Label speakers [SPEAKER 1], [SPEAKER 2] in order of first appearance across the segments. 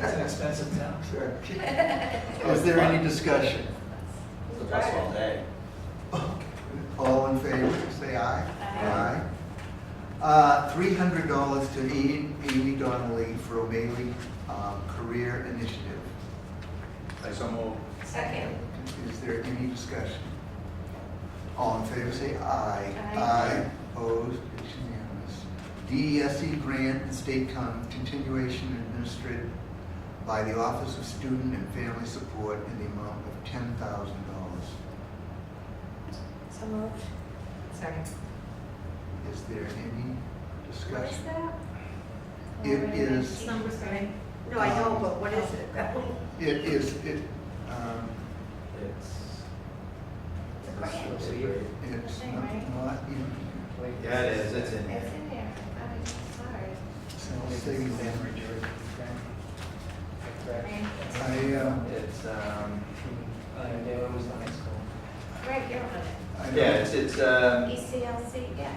[SPEAKER 1] expensive town.
[SPEAKER 2] Sure. Is there any discussion?
[SPEAKER 3] It's a bus all day.
[SPEAKER 2] All in favor, say aye.
[SPEAKER 3] Aye.
[SPEAKER 2] Uh, three hundred dollars to Amy, Amy Donnelly for O'Malley, um, Career Initiative.
[SPEAKER 3] I so move.
[SPEAKER 4] Second.
[SPEAKER 2] Is there any discussion? All in favor, say aye.
[SPEAKER 4] Aye.
[SPEAKER 2] Opposed, it's unanimous. DESE E grant and state con- continuation administered by the Office of Student and Family Support in the amount of ten thousand dollars.
[SPEAKER 4] So moved. Second.
[SPEAKER 2] Is there any
[SPEAKER 4] What is
[SPEAKER 2] discussion?
[SPEAKER 4] that?
[SPEAKER 2] It is,
[SPEAKER 4] Numbers, right?
[SPEAKER 5] No, I know, but what is it?
[SPEAKER 2] it is, it, um,
[SPEAKER 3] It's.
[SPEAKER 4] It's a grant.
[SPEAKER 1] So you-
[SPEAKER 2] it's
[SPEAKER 4] Thing,
[SPEAKER 2] not,
[SPEAKER 4] right?
[SPEAKER 2] not in,
[SPEAKER 3] Yeah, it is, it's in
[SPEAKER 4] It's
[SPEAKER 3] there.
[SPEAKER 4] in there. I'm sorry.
[SPEAKER 2] so I'll say that.
[SPEAKER 4] Right.
[SPEAKER 2] I, um,
[SPEAKER 3] It's, um,
[SPEAKER 4] Right, you're on
[SPEAKER 2] I
[SPEAKER 3] yeah,
[SPEAKER 2] don't,
[SPEAKER 3] it's, it's,
[SPEAKER 4] it. E
[SPEAKER 3] um,
[SPEAKER 4] ECLC, yeah.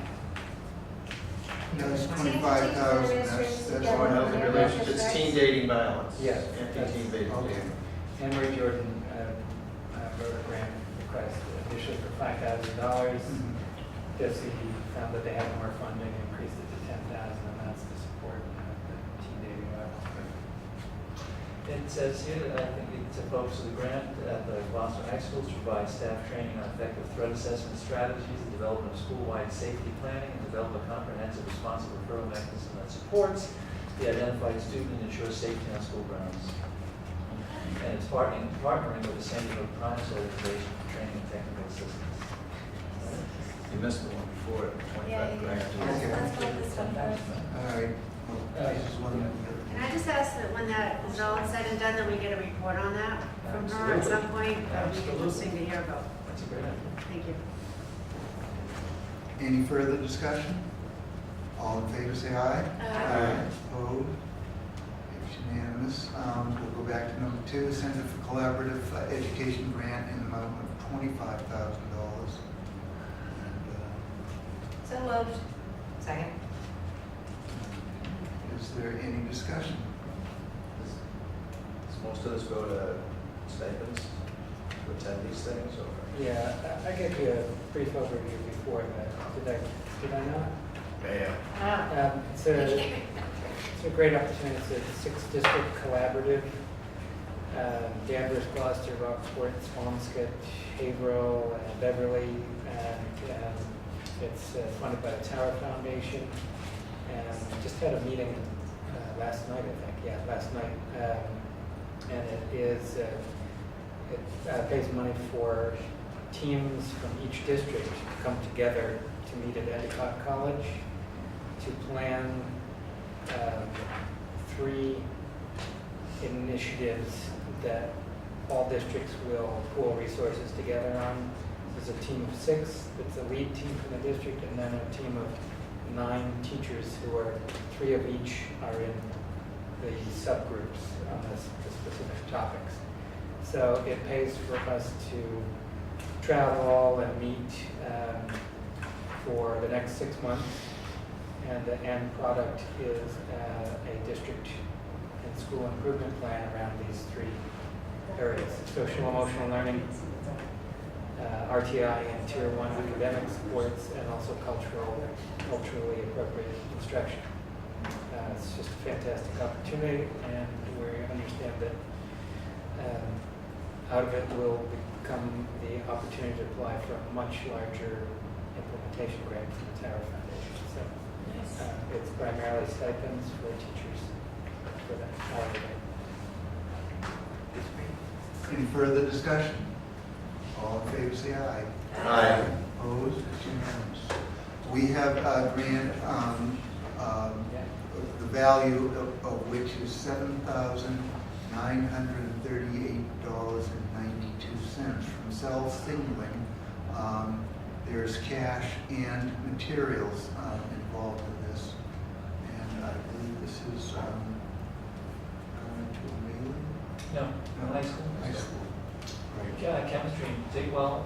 [SPEAKER 2] that's twenty-five thousand, that's, that's
[SPEAKER 4] Yeah,
[SPEAKER 2] what
[SPEAKER 4] one
[SPEAKER 3] healthy
[SPEAKER 4] of
[SPEAKER 2] I,
[SPEAKER 4] them.
[SPEAKER 3] relations, it's teen dating violence.
[SPEAKER 1] Yes.
[SPEAKER 3] Anti-teen dating.
[SPEAKER 2] okay.
[SPEAKER 1] Emory Jordan uh, uh, wrote a grant request initially for five thousand dollars.
[SPEAKER 2] Mhm.
[SPEAKER 1] Jesse found that they had more funding, increased it to ten thousand, and that's to support uh, the teen dating violence.
[SPEAKER 6] It says here, that I think it's a focus of the grant at the Boston High School to provide staff training on effective threat assessment strategies, the development of school-wide safety planning, and develop a comprehensive responsive referral mechanism that supports the identified student and ensures safety on school grounds. And it's partnering, partnering with the San Diego Primes Organization for Training and Technical Assistance.
[SPEAKER 3] You missed the one before,
[SPEAKER 4] Yeah,
[SPEAKER 3] twenty-five
[SPEAKER 4] you-
[SPEAKER 3] grand.
[SPEAKER 4] let's, let's look this one first.
[SPEAKER 2] All right, well, this is one of the other.
[SPEAKER 5] Can I just ask that when that is all said and done, that we get a report on that from her at some point? That would be interesting to hear about.
[SPEAKER 6] That's a great idea.
[SPEAKER 5] Thank you.
[SPEAKER 2] Any further discussion? All in favor, say aye.
[SPEAKER 5] Aye.
[SPEAKER 2] Opposed? It's unanimous. Um, We'll go back to number two, Center for Collaborative uh, Education Grant in the amount of twenty-five thousand dollars. uh,
[SPEAKER 4] So moved. Second.
[SPEAKER 2] Is there any discussion?
[SPEAKER 3] Does most of us go to stipends to attend these things, or?
[SPEAKER 1] Yeah, I I gave you a brief overview before, but did I, did I not?
[SPEAKER 3] Yeah.
[SPEAKER 5] Ah.
[SPEAKER 1] Um, It's a, it's a great opportunity, it's a six-district collaborative. Um, Danvers, Gloucester, Rockport, Swampscott, Haverhill, and Beverly. And um, it's uh, funded by the Tower Foundation. And just had a meeting uh, last night, I think, yeah, last night. Um, And it is, uh, it uh, pays money for teams from each district to come together to meet at Endicott College to plan um, three initiatives that all districts will pool resources together on. There's a team of six, that's a lead team from the district, and then a team of nine teachers who are, three of each are in the subgroups on this- the specific topics. So it pays for us to travel and meet um, for the next six months. And the end product is uh, a district and school improvement plan around these three areas. Social emotional learning, uh, RTI and tier one academic supports, and also cultural, culturally appropriate instruction. Uh, It's just a fantastic opportunity, and we understand that um, out of it will become the opportunity to apply for a much larger implementation grant from the Tower Foundation. So uh, It's primarily stipends for teachers for that holiday.
[SPEAKER 2] Any further discussion? All in favor, say aye.
[SPEAKER 3] Aye.
[SPEAKER 2] Opposed? It's unanimous. We have a grant, um, um,
[SPEAKER 1] Yeah.
[SPEAKER 2] the value of, of which is seven thousand nine hundred and thirty-eight dollars and ninety-two cents from Sal Singling. Um, there's cash and materials, um, involved in this. And I believe this is, um, going to a mailing?
[SPEAKER 6] No,
[SPEAKER 2] No,
[SPEAKER 6] high school?
[SPEAKER 2] High school. Right.
[SPEAKER 6] Yeah, chemistry, take, well,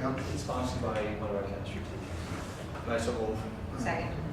[SPEAKER 2] Yep.
[SPEAKER 6] it's sponsored by one of our chemistry teachers.
[SPEAKER 3] Nice of all.
[SPEAKER 4] Second.